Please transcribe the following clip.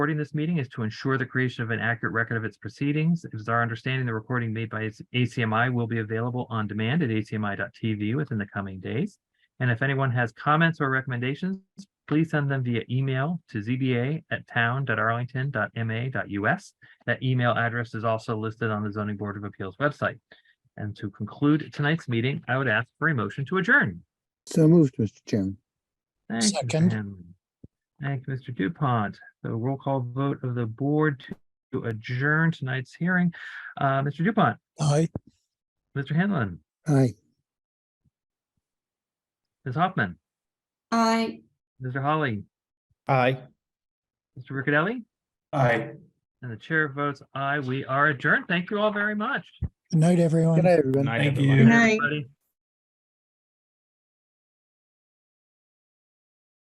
recording this meeting is to ensure the creation of an accurate record of its proceedings. It is our understanding the recording made by ACMI will be available on demand at acmi.tv within the coming days. And if anyone has comments or recommendations, please send them via email to zba@town.arlington.ma.us. That email address is also listed on the zoning board of appeals website. And to conclude tonight's meeting, I would ask for a motion to adjourn. So moved, Mr. Chairman. Thank you, Mr. Second. Hanlon. Thank you, Mr. Dupont. The roll call vote of the board to adjourn tonight's hearing. Uh, Mr. Dupont, Aye. Mr. Hanlon, Aye. Ms. Hoffman, Aye. Mr. Holly, Aye. Mr. Riccadelli, Aye. and the chair votes aye. We are adjourned. Thank you all very much. Good night, everyone. Good night, everyone. Night, Good everyone. night, Aye. everybody.